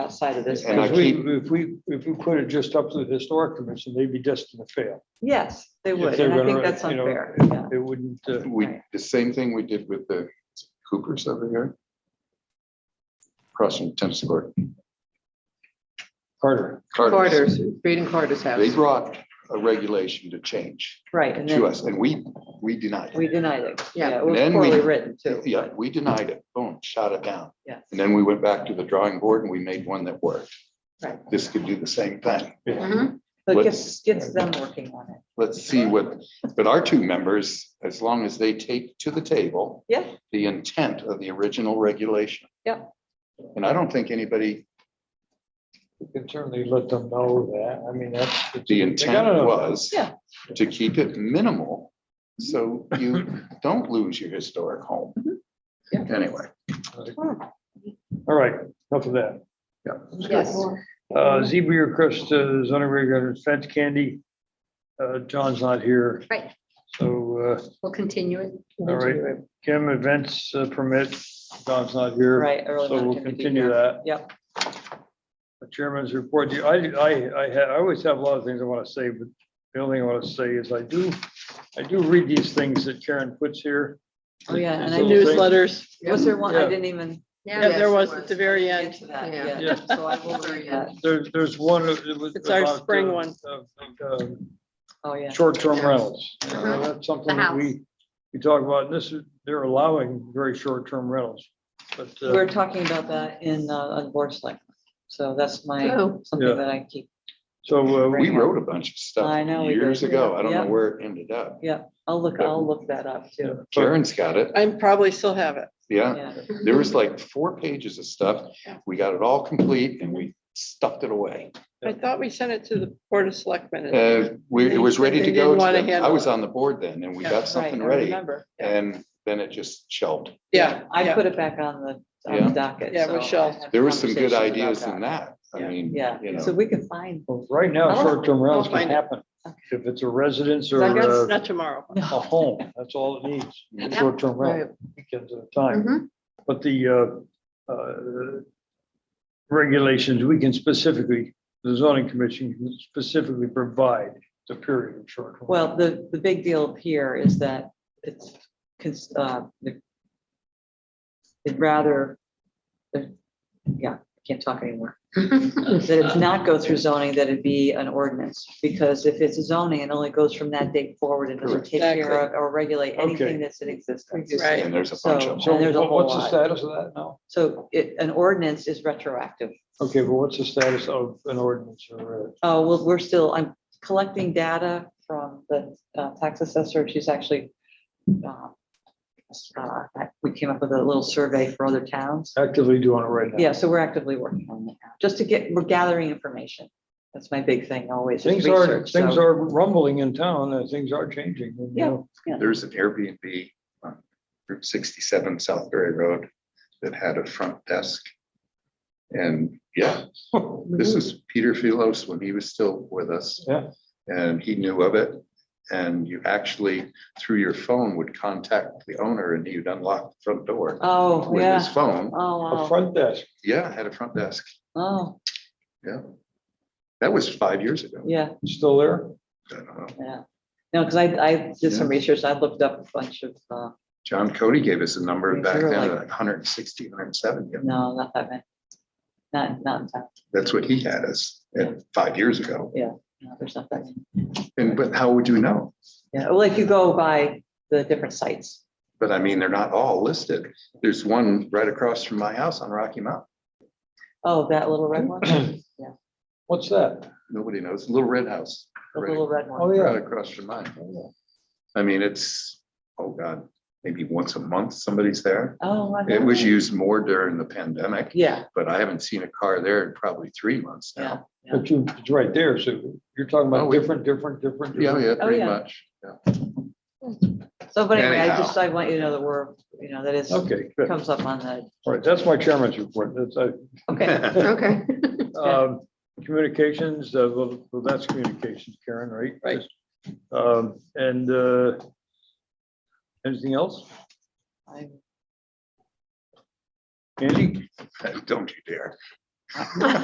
outside of this. And I Because we- keep- If we, if we put it just up to the historic commission, they'd be destined to fail. Yes, they If would, they're and I think gonna, that's you know, unfair, it- yeah. It wouldn't, uh, We, Right. the same thing we did with the Coopers over here. Across from tennis court. Carter, Carter's. Carter's, Reed and Carter's They house. brought a regulation to change Right, and to then us and we, we denied we it. denied it. Yeah. Yeah, it was Then we- poorly written too. Yeah, we denied it. Boom, shot it down. Yes, And then we went back to the drawing board and we made one that worked. Right. This could do the same thing. Mhm. so it what- gets, gets them working on it. Let's see what, but our two members, as long as they take to the table. Yeah. The intent of the original regulation. Yeah. And I don't think anybody, we can certainly let them know that. I mean, that's. the gotta know intent that. was. Yeah. To keep it minimal, so you don't lose your historic home. Yeah. Anyway, All right, enough of that. Yes. Uh, zebra request, uh, zoning regular fence candy. Uh, John's not here. Right. So, uh, We'll continue it. all right, Kim, events uh, permit, John's not here. Right. early So we'll mountain to be continue here. that. Yep, The Chairman's report, The- I, I, I, ha- I always have a lot of things I want to say, but the only thing I want to say is I do, I do read these things that Karen puts here. oh, yeah, and I These knew, little things. Newsletters, was there one, I Yeah. didn't even Yeah, yeah, there was at the very get end. to that Yeah. yet, Yeah. so I will read that, There's, there's one. that was It's our about, uh, spring one. of, um, oh, yeah. Short-term rentals. You know, Mhm. That's something The that we, we talk about, and this is, they're allowing very short-term rentals. But, We We're uh, talking about that in, uh, on board select, so that's my, Oh, Yeah. something that I keep, so uh, we, we wrote a bunch of I know stuff we did. years ago. I don't Yeah. know where it ended up. yeah, I'll look, I'll look that up too, Karen's got it. I probably still have it. Yeah, yeah, there was like four pages of stuff. We got it all complete and we stuffed it away. I thought we sent it to the Board of Selectmen. Uh, we, it was ready to They go. to didn't wanna them. I handle was it. on the board then and we Yeah, got right, I something ready remember. yeah. and then it just shelved. Yeah, I yeah. put it back on the, on Yeah. the docket. Yeah, so Rochelle. I had There were some good conversations about ideas in that. I Yeah. mean, you Yeah, so know, we can find, both. right now, I'll- short-term rentals I'll can find it. happen. If it's a residence or I guess a Not tomorrow. a home, that's all it needs, Yeah. short-term rental, weekends at a time. Mm-hmm. mhm. But the uh, uh, regulations, we can specifically, the zoning commission can specifically provide the period of short. well, the, the big deal here is that it's, cons- uh, the- it'd rather, the- yeah, I can't talk anymore. That it's not go through zoning, that it be an ordinance, because if it's zoning, it only goes from that date forward and doesn't Correct. take care Exactly. of or regulate Okay. anything that's in existence. Right. and there's a bunch of So and there's a what- what's whole the lot. status of that now? So it, an ordinance is retroactive. Okay, but what's the status of an ordinance or? a- Oh, well, we're still, I'm collecting data from the uh, tax assessor. She's actually, uh, uh, we came up with a little survey for other towns. uh, Actively doing it right now. Yeah, so we're actively working on that, just to get, we're gathering information. That's my big thing always. is Things are, research, so- things are rumbling in town and things are changing. and, you Yeah. know, There's an Airbnb on Route sixty-seven Southbury Road that had a front desk. And yeah, this is Peter Filos when he was still with us. Yeah. And he knew of it. And you actually, through your phone, would contact the owner and he'd unlock the front door Oh, with his yeah. phone. A Oh, wow. front desk. Yeah, had a front desk. Oh, Yeah. That was five years ago. yeah, Still there? I don't know. yeah. No, because I, I did some research. I looked up a bunch of, uh, John Cody gave us a number These back are then, like- like 160, 170. no, not that many. Not, not in fact, That's what he had us at five years ago. no, there's not that many. And but how would you know? Yeah, well, if you go by the different sites. But I mean, they're not all listed. There's one right across from my house on Rocky Mountain. Oh, that little red one, the What's that? Nobody knows. Little red house. Right little red Oh, one. Oh, yeah. right across from mine. I mean, it's, oh God, maybe once a month somebody's there. Oh. I It know. was used more during the pandemic, Yeah, but I haven't seen a car there in probably three months yeah. now. yeah. But you, it's right there. So you're talking Oh, about we- different, different, different. Yeah, different- yeah, pretty yeah. much. Yeah. So, but anyway, I Anyhow. just, I want you to know that we're, you know, that is, Okay, good. comes up on the, All right, that's my chairman's report. That's, I, okay, Okay. Um, Communications, uh, well, well, that's communications, Karen, right? Right. Um, And uh, anything else? I'm Andy? Don't you dare.